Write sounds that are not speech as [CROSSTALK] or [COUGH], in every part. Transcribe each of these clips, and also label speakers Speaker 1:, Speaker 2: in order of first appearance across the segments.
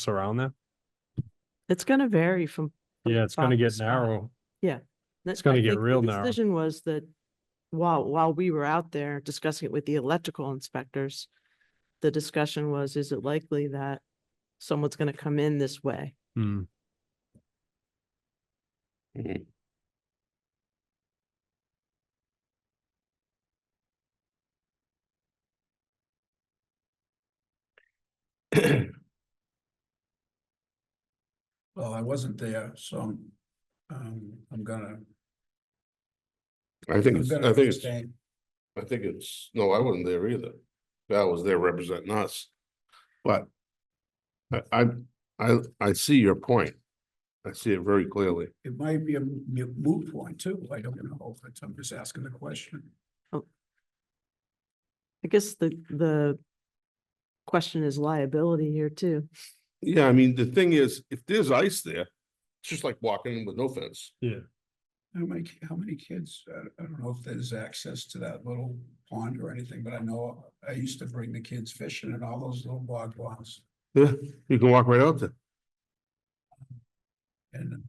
Speaker 1: surround that?
Speaker 2: It's gonna vary from. from
Speaker 1: Yeah, it's gonna
Speaker 2: spot to
Speaker 1: get
Speaker 2: spot.
Speaker 1: narrow.
Speaker 2: That-
Speaker 1: it's gonna
Speaker 2: I
Speaker 1: get
Speaker 2: think the
Speaker 1: real narrow.
Speaker 2: Decision was that while, while we were out there discussing it with the electrical inspectors, the discussion was, is it likely that someone's gonna come in this way?
Speaker 1: Hmm.
Speaker 3: Well, I wasn't there, so um, I'm gonna.
Speaker 4: I think, it's-
Speaker 3: I'm
Speaker 4: I
Speaker 3: gonna
Speaker 4: think, it's-
Speaker 3: abstain.
Speaker 4: I think it's, no, I wasn't there either. Val was there representing us. But I, I, I, I see your point. I see it very clearly.
Speaker 3: It might be a mo- moot point too. I don't know. but I'm just asking the question.
Speaker 2: I guess the, the question is liability here too.
Speaker 4: Yeah, I mean, the thing is, if there's ice there, it's just like walking in with no fence.
Speaker 3: How many, ki- how many kids, I I don't know if there's access to that little pond or anything, but I know I used to bring the kids fishing in all those little bog ponds.
Speaker 4: Yeah, [LAUGHS] you can walk right out there.
Speaker 3: And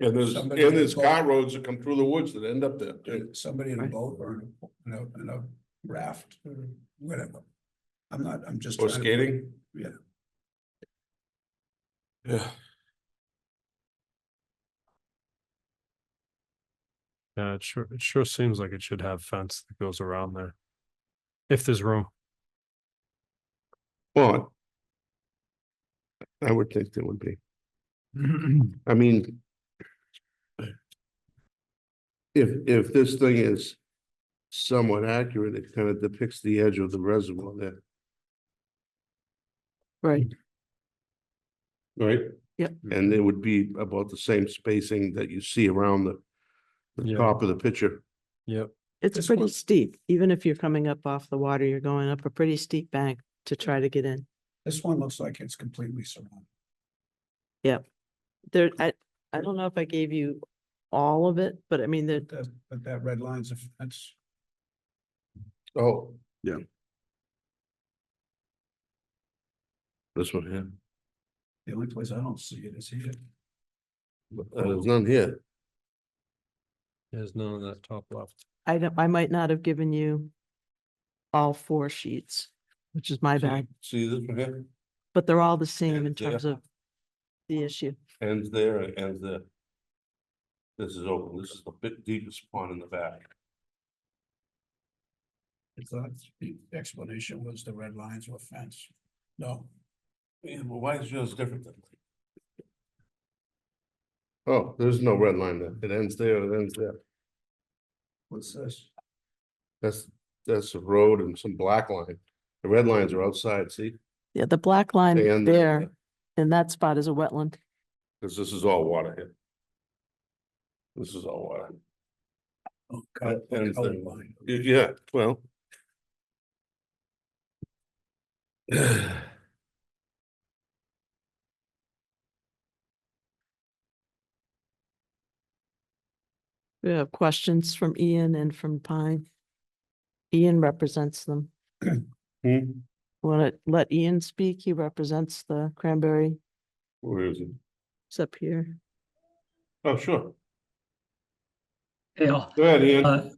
Speaker 4: And there's, and
Speaker 3: Somebody-
Speaker 4: there's car roads that come through the woods that end up there. too.
Speaker 3: somebody in a
Speaker 2: Right.
Speaker 3: boat or in a, in a raft or whatever. I'm not, I'm just.
Speaker 4: Or
Speaker 3: trying to-
Speaker 4: skating.
Speaker 3: Yeah.
Speaker 4: Yeah.
Speaker 1: Yeah, it sure, it sure seems like it should have fence that goes around there. If there's room,
Speaker 4: Well. I would think there would be. I mean. If, if this thing is somewhat accurate, it kind of depicts the edge of the reservoir there,
Speaker 2: Right.
Speaker 4: right?
Speaker 2: Yep.
Speaker 4: And it would be about the same spacing that you see around the, the
Speaker 1: Yeah.
Speaker 4: top of the picture.
Speaker 1: yep,
Speaker 2: It's
Speaker 3: This
Speaker 2: pretty
Speaker 3: was-
Speaker 2: steep. Even if you're coming up off the water, you're going up a pretty steep bank to try to get in.
Speaker 3: This one looks like it's completely surrounded.
Speaker 2: There, I, I don't know if I gave you all of it, but I mean, there,
Speaker 3: That, but that red line's a fence.
Speaker 4: Oh. Yeah. This one here,
Speaker 3: The only place I don't see it is here.
Speaker 4: But, uh, there's none here.
Speaker 1: there's none on that top left.
Speaker 2: I don't, I might not have given you all four sheets, which is my bad,
Speaker 4: See this one here,
Speaker 2: but they're all the same in
Speaker 4: And, uh,
Speaker 2: terms of the issue.
Speaker 4: ends there, and ends there. This is open, this is the bit deepest pond in the back.
Speaker 3: I thought the explanation was the red lines were fence. No,
Speaker 4: Yeah, well, why is yours different than? Oh, there's no red line there. It ends there, it ends there.
Speaker 3: what's this?
Speaker 4: That's, that's a road and some black line. The red lines are outside, see?
Speaker 2: Yeah, the black line
Speaker 4: They end
Speaker 2: there in that spot is a wetland.
Speaker 4: Cause this is all water here. This is all water.
Speaker 3: Oh, God,
Speaker 4: It ends there.
Speaker 3: color line.
Speaker 4: Y- Yeah, well. [SIGHS]
Speaker 2: We have questions from Ian and from Pine. Ian represents them.
Speaker 4: Hmm,
Speaker 2: Want to let Ian speak? He represents the Cranberry.
Speaker 4: where is it?
Speaker 2: It's up here.
Speaker 4: Oh, sure.
Speaker 5: Dale,
Speaker 4: Go ahead, Ian.
Speaker 5: uh,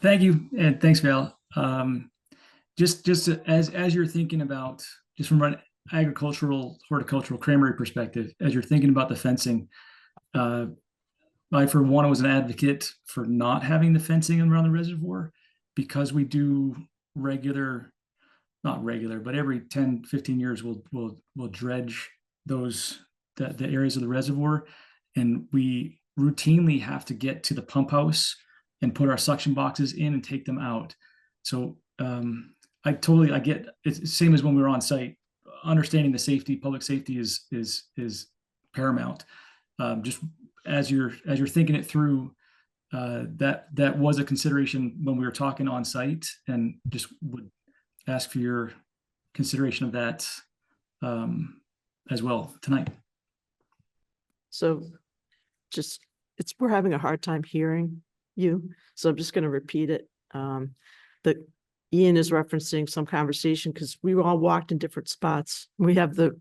Speaker 5: thank you, and thanks, Val. Um, just, just to- as, as you're thinking about, just from an agricultural, horticultural, cranberry perspective, as you're thinking about the fencing, uh, I, for one, was an advocate for not having the fencing around the reservoir because we do regular, not regular, but every 10, 15 years, we'll, we'll, we'll dredge those, the, the areas of the reservoir. And we routinely have to get to the pump house and put our suction boxes in and take them out. So um, I totally I get it's the same as when we were on site. Understanding the safety, public safety is is is paramount. Um, just as you're as you're thinking it through, uh, that that was a consideration when we were talking on site, and just would ask for your consideration of that um, as well tonight.
Speaker 2: So just, it's, we're having a hard time hearing you, so I'm just gonna repeat it. Um, the, Ian is referencing some conversation because we were all walked in different spots. We have the